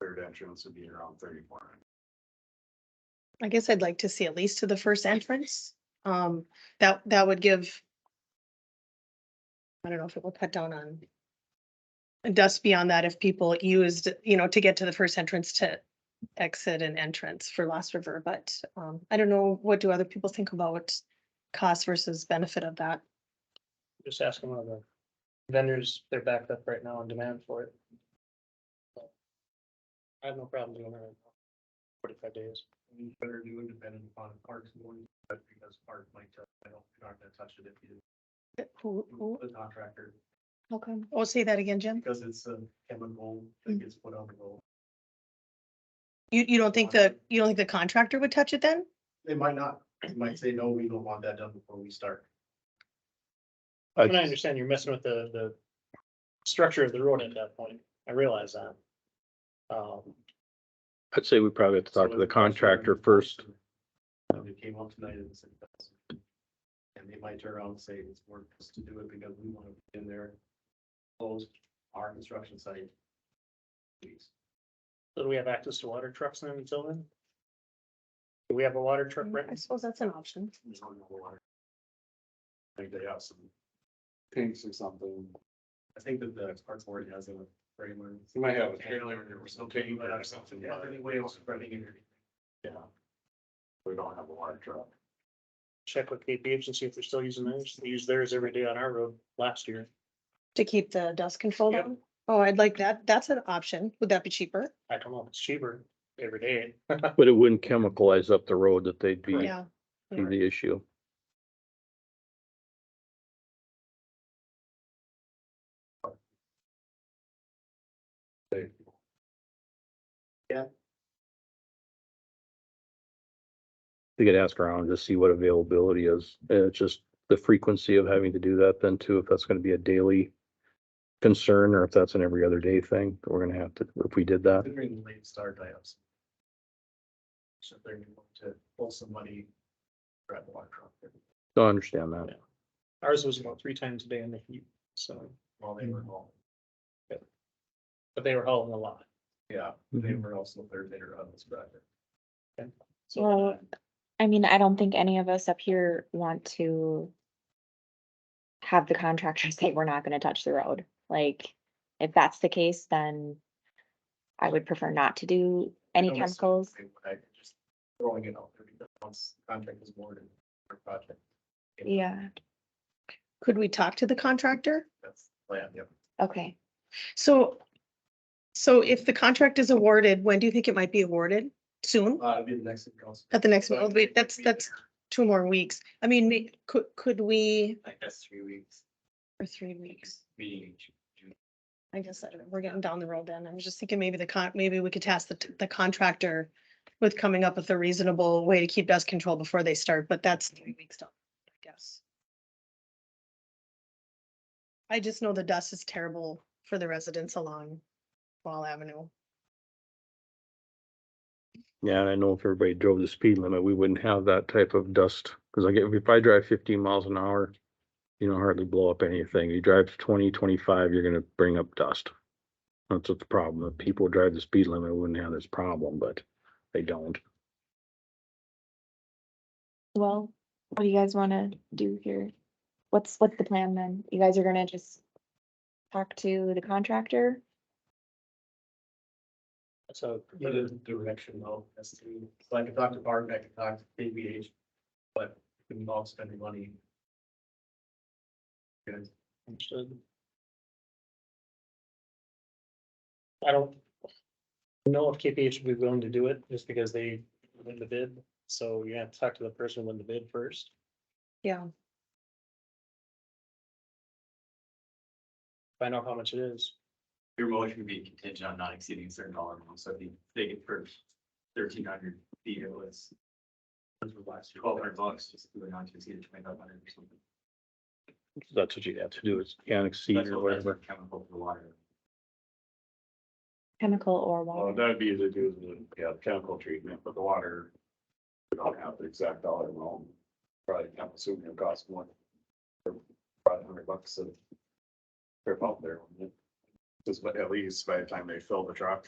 third entrance would be around thirty-four. I guess I'd like to see at least to the first entrance. Um, that, that would give. I don't know if it will cut down on. Dust beyond that if people used, you know, to get to the first entrance to exit and entrance for Lost River, but, um, I don't know, what do other people think about? Cost versus benefit of that? Just asking one of the vendors, they're backed up right now on demand for it. So, I have no problem doing that. right now. Forty-five days. You better do it depending upon parks more, but because park might tell, I don't, you're not gonna touch it if you, Who, who, the contractor, how come? Oh, say that again, Jim. because it's a chemical that gets put on the road. You, you don't think the, you don't think the contractor would touch it then? They might not, they might say, no, we don't want that done before we start. And I understand you're messing with the, the structure of the road at that point. I realize that. Um, I'd say we probably have to talk to the contractor first. So They came out tonight and said. "That's-" And they might turn around and say, it's worth us to do it because we want to be in there. Close our construction site. Please. so do we have access to water trucks then until then? Do we have a water truck Mm, I rented? suppose that's an option. there's no more water. I think they have some. Tanks or something. I think that the parts board has a trailer. You might have a Trailer or something. You might have something. Yeah, anyway, it's running in. Yeah. We don't have a water truck. Check with KPH and see if they're still using theirs. They use theirs every day on our road last year. To keep the dust control Yep. down? Oh, I'd like that. That's an option. Would that be cheaper? I don't know if it's cheaper every day. But it wouldn't chemicalize up the road that they'd be, Yeah. be the issue. Yeah. We could ask around to see what availability is. And it's just the frequency of having to do that then too, if that's gonna be a daily concern or if that's an every other day thing, we're gonna have to, if we did that. Considering the late start, I have some. So they're going to pull some money. Grab the water truck. I understand that. Ours was about three times a day in the heat, so, While they were home. but they were hauling a lot. Yeah, they were also uh, third bidder on this project. So Well, I mean, I don't think any of us up here want to have the contractor say we're not gonna touch the road. Like, if that's the case, then I would prefer not to do any Unless- chemicals. They would, I just throwing it out there because once the contract is awarded, their project. if Yeah, Could we talk to the contractor? That's the plan, yep. okay. So, so if the contract is awarded, when do you think it might be awarded? Soon? Uh, it'd be the next city council. At the next, So I well, think wait, it'd that's, be that's there, two more weeks. I mean, may- could, could we, Like, that's three weeks, for three weeks? meeting in June. I guess I don't- we're getting down the road then. I was just thinking maybe the con, maybe we could task the, t- the contractor with coming up with a reasonable way to keep dust control before they start, but that's three weeks down, I guess. I just know the dust is terrible for the residents along Wall Avenue. Yeah, and I know if everybody drove the speed limit, we wouldn't have that type of dust, because like if if I drive fifteen miles an hour, you don't hardly blow up anything. You drive 20, 25, twenty-five, you're gonna bring up dust. That's what the problem. If people drive the speed limit, we wouldn't have this problem, but they don't. Well, what do you guys wanna do here? What's, what's the plan then? You guys are gonna just talk to the contractor? so Get a direction though, as to, so I can talk to Barb, I can talk to KBH, but we involve spending money. Good. understood. I don't know if KPH would be willing to do it just because they win the bid. So you have to talk to the person who won the bid first. Yeah, Find out how much it is. Your motion would be contingent on not exceeding a certain dollar amount, so if you take it for thirteen hundred feet, it was twelve hundred bucks, just do it not to exceed twenty-five hundred or something. That's what you have to do is can't exceed That's or what- that's whatever. what Chemical for the water. Chemical or Well, water? that'd be the do the, yeah, the chemical treatment, but the water. We don't have the exact dollar amount. Probably, I'm assuming it costs more. Five hundred bucks a Trip out there. wouldn't it? Just, but at least by the time they fill the truck,